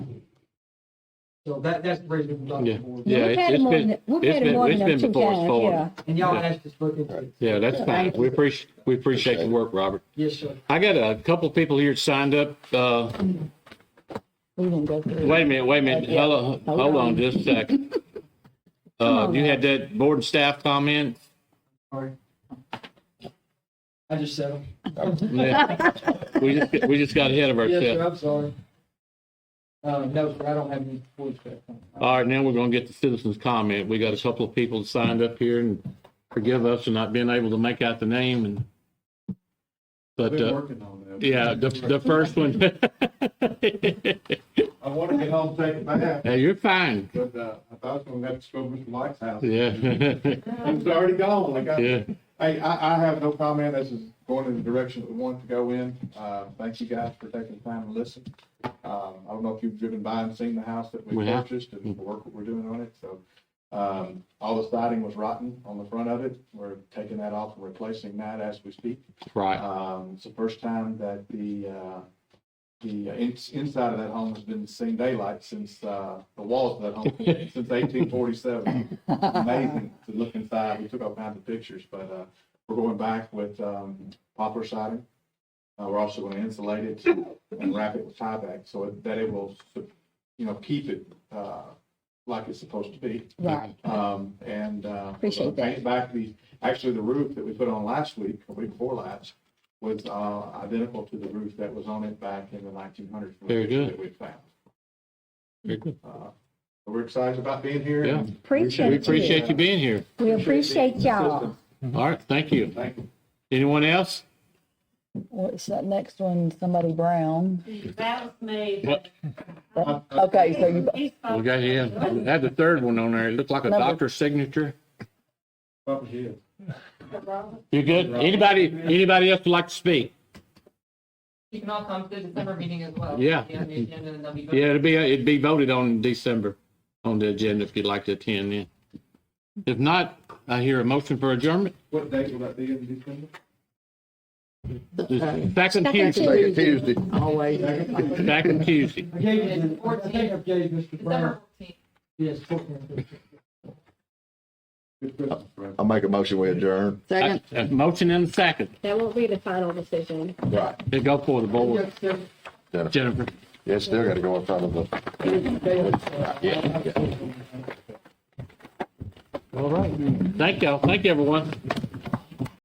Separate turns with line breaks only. So that, that's the reason we're
Yeah.
talking
Yeah,
We've
it's-
had
it's
them more
been-
than, we've
it's
had them
been-
more
it's
than
been
enough two
before it's
times,
forward.
yeah.
And y'all asked us to look into it.
Yeah, that's fine. We appreciate, we appreciate your work, Robert.
Yes, sir.
I got a couple of people here signed up. Uh,
We didn't go through.
wait a minute, wait a minute.
Yeah.
Hello,
Hold
hold
on.
on just a second.
Come
Uh,
on
you
now.
had that board and staff comment?
Sorry. I just said them.
Yeah. We just, we just got ahead of
Yes, sir,
ourselves.
I'm sorry. Uh, no, sir, I don't have any voice back.
All right, now we're going to get the citizens' comment. We got a couple of people signed up here and forgive us for not being able to make out the name and, but,
Been
uh,
working on that.
yeah, the, the first one.
I wanted to get home, take a bath,
Hey, you're fine.
but, uh, I thought I was gonna have to go to Mr. Black's house.
Yeah.
He was already gone, like, I,
Yeah.
hey, I, I have no comment, this is going in the direction that we want to go in. Uh, thank you guys for taking the time to listen. Um, I don't know if you've driven by and seen the house that we
We have.
purchased and the work that we're doing on it, so. Um, all the siding was rotten on the front of it, we're taking that off and replacing that as we speak.
Right.
Um, it's the first time that the, uh, the uh, ins- inside of that home has been seen daylight since, uh, the walls of that home, since eighteen forty-seven. Amazing to look inside. We took all kinds of pictures, but, uh, we're going back with, um, poplar siding. Uh, we're also going to insulate it and wrap it with tieback so it- that it will, you know, keep it, uh, like it's supposed to be.
Right.
Um, and, uh. we're
Appreciate
gonna
that.
Paint back the, actually the roof that we put on last week, or week before last, was, uh, identical to the roof that was on it back in the nineteen hundreds.
Very good.
That we found.
Very good.
Uh, We're excited about being here.
Yeah.
Appreciate
We
you.
appreciate you being here.
We appreciate
All
y'all.
right. Thank you.
Thank you.
Anyone else?
What's that next one? Somebody brown.
That was me.
What?
Okay, so you,
He's
We
supposed
got you. Had the third one on there. It looked like a
Number-
doctor's signature.
Up here.
to Robert.
You good? Anybody, anybody else would like to speak?
You can all come to the December meeting as well.
Yeah.
Be on the agenda and they'll be voted.
Yeah, it'd be, it'd be voted on in December on the agenda if you'd like to attend then. If not, I hear a motion for adjournment.
What date will that be in December?
It's Back on
Second
Tuesday,
Tuesday. Always.
back on Tuesday.
I gave you, the- I think I gave Mr. Brown,
December 14th.
yes, fourteen.
Good Christmas, friend.
I make a motion, we adjourn.
A
Second,
a motion and a second.
That won't be the final decision.
Right.
Then go for the board. Jennifer.
Yeah, it's still gotta go in front of the.
All right. Thank y'all. Thank you, everyone.